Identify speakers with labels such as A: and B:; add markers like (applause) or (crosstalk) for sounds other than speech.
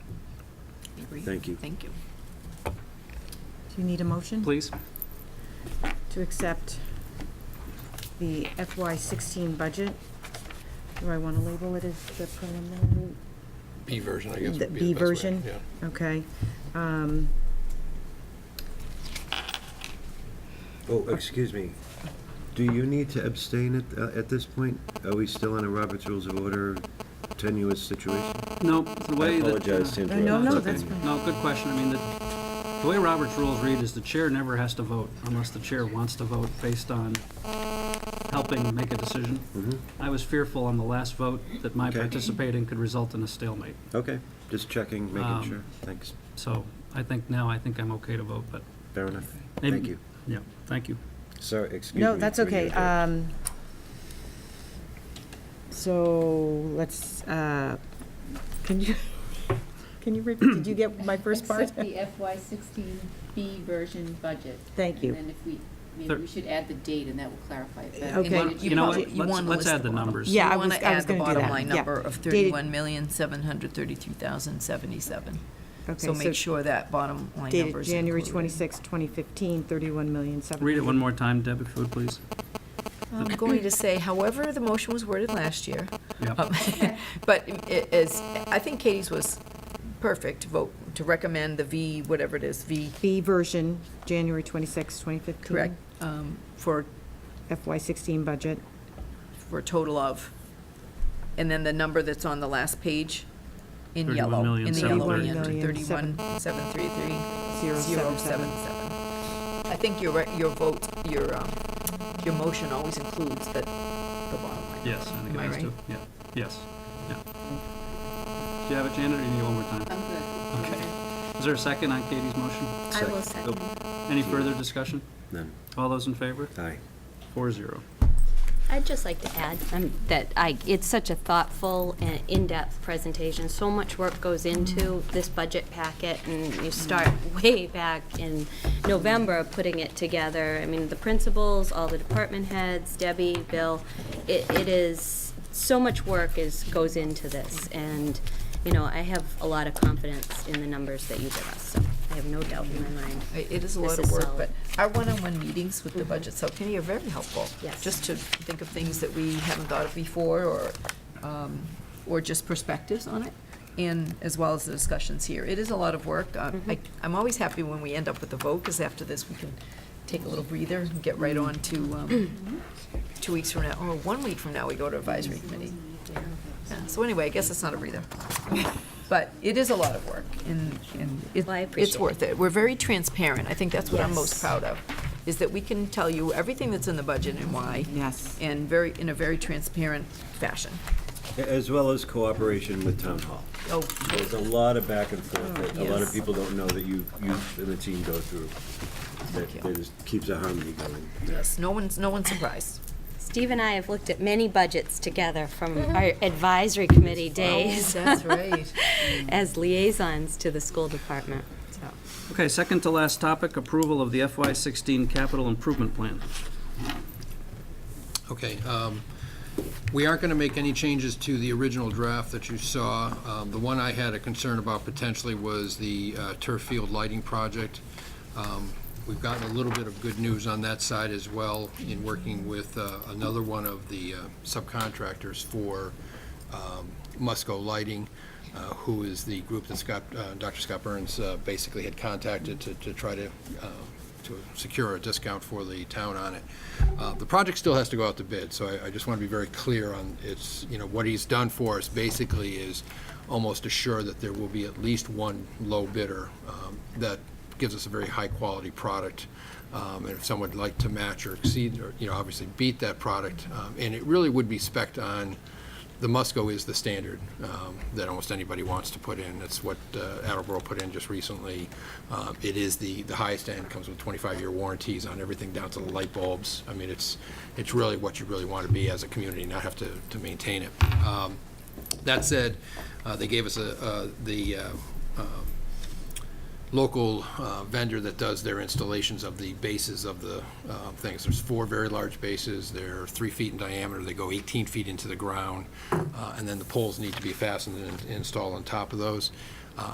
A: agree.
B: Thank you.
A: Thank you.
C: Do you need a motion?
D: Please?
C: To accept the FY sixteen budget. Do I want to label it as the preliminary?
E: B version, I guess,
C: The
E: would be the
C: B
E: best way,
C: version?
E: Yeah.
C: Okay. Um,
B: Oh, excuse me. Do you need to abstain at, uh, at this point? Are we still in a Robert's Rules of Order tenuous situation?
D: No, the
B: I
D: way that...
B: apologize to
D: uh,
C: No,
B: interrupt.
C: no,
B: but-
C: that's
D: No, good question. I mean, the, the way Robert's rules read is the chair never has to vote unless the chair wants to vote based on helping make a decision.
B: Mhm.
D: I was fearful on the last vote that my
B: Okay.
D: participating could result in a stalemate.
B: Okay, just checking, making
D: Um,
B: sure. Thanks.
D: So I think now, I think I'm okay to vote, but,
B: Fair enough.
D: Maybe-
B: Thank you.
D: yeah, thank you.
B: Sorry, excuse me.
C: No, that's
B: for your
C: okay.
B: interrupt.
C: Um, So let's, uh, can you, (laughs) can you, repeat? did you get my
F: (laughs)
C: first part?
F: Accept the FY sixteen B version budget.
C: Thank you.
F: And then if we,
D: Thir-
F: maybe we should add the date, and that will clarify it better.
A: And
C: Okay.
A: then
C: But
D: you know
A: probably-
D: what?
A: you
D: Let's-
A: wanna
D: let's
A: list
D: add the
A: bottom-
D: numbers.
C: Yeah, I
A: You want
C: was-
A: to
C: I was
A: add the
C: gonna do
A: bottom
C: that,
A: line
C: yeah.
A: number of
C: Dated-
A: thirty-one million, seven hundred thirty-two thousand, seventy-seven.
C: Okay,
A: So make sure that bottom line number
C: Dated
A: is
C: January
A: included.
C: 26, 2015, 31 million,
D: Read it one more time, Deb, if you would, please.
A: I'm going to say, however, the motion was worded last year.
D: Yep.
A: Um, (laughs) But it is, I think Katie's was perfect, vote to recommend the V, whatever it is, V,
C: B version, January 26, 2015.
A: correct,
C: Mm-hmm.
A: um, for,
C: FY sixteen budget.
A: for a total of, and then the number that's on the last page in yellow, in the yellow hand,
C: 31,733,077.
A: thirty-one, seven, three, three, zero, seven, seven. I think your, re- your vote, your, um, your motion always includes the, the bottom line.
D: Yes, I think
A: Am
D: it
A: I
D: has
A: right?
D: to. Yeah, yes, yeah. Do you have it, Janet, or do you need one more time?
F: I'm good.
D: Okay. Is there a second on Katie's motion?
B: I will
F: second.
D: Any further discussion?
B: None.
D: All those in favor?
B: Aye.
D: Four zero.
G: I'd just like to add um, that I, it's such a thoughtful and in-depth presentation. So much work goes into this budget packet, and you start (laughs) way back in November putting it together. I mean, the principals, all the department heads, Debbie, Bill, it it is, so much work is, goes into this. And, you know, I have a lot of confidence in the numbers that you give us, so I have no doubt in my mind.
A: I- It is a
G: This
A: lot of
G: is
A: work,
G: solid. Mm-hmm.
A: but our one-on-one meetings with the budget subcommittee are very helpful.
G: Yes.
A: Just to think of things that we haven't thought of before, or, um, or just perspectives on it, and as well as the discussions here. It is a lot of work. Uh,
G: Mm-hmm.
A: I- I'm always happy when we end up with a vote, because after this, we can take a little breather and get right on to,
G: Mm-hmm. (clears throat)
A: um, two weeks from now, or one week from now, we go to advisory committee. Yeah, So anyway, I guess it's not a
G: (laughs)
A: breather. But it is a lot of work, and, and it-
G: Well, I
A: it's
G: appreciate
A: worth it. We're very transparent. I think that's what I'm most
G: Yes.
A: proud of, is that we can tell you everything that's in the budget and why,
C: Yes.
A: and very, in a very transparent fashion.
B: A- As well as cooperation with Town Hall.
A: Oh,
B: There's a lot of back and forth that a lot of
A: Yes.
B: people don't know that you, you and the team go through. That
A: Thank you.
B: that is- keeps a harmony going.
A: yes, no one's, no one's surprised.
G: Steve and I have looked at many budgets together from our advisory committee days.
A: Oh, that's right.
G: As liaisons to the school department, so.
D: Okay, second to last topic, approval of the FY sixteen capital improvement plan.
E: Okay, um, we aren't going to make any changes to the original draft that you saw. Um, The one I had a concern about potentially was the uh, turf field lighting project. Um, We've gotten a little bit of good news on that side as well in working with uh, another one of the uh, subcontractors for um, Musco Lighting, uh, who is the group that Scott, uh, Dr. Scott Burns uh, basically had contacted to to try to uh, to secure a discount for the town on it. Uh, The project still has to go out to bid, so I- I just want to be very clear on, it's, you know, what he's done for us basically is almost assure that there will be at least one low bidder um, that gives us a very high-quality product. Um, And if someone would like to match or exceed, or, you know, obviously beat that product, um, and it really would be spec'd on, the Musco is the standard um, that almost anybody wants to put in. That's what uh, Attleboro put in just recently. Um, It is the, the highest end, comes with 25-year warranties on everything down to the light bulbs. I mean, it's, it's really what you really want to be as a community, not have to, to maintain it. Um, That said, uh, they gave us a, uh, the uh, um, local uh, vendor that does their installations of the bases of the uh, things. There's four very large bases, they're three feet in diameter, they go 18 feet into the ground, uh, and then the poles need to be fastened and installed on top of those.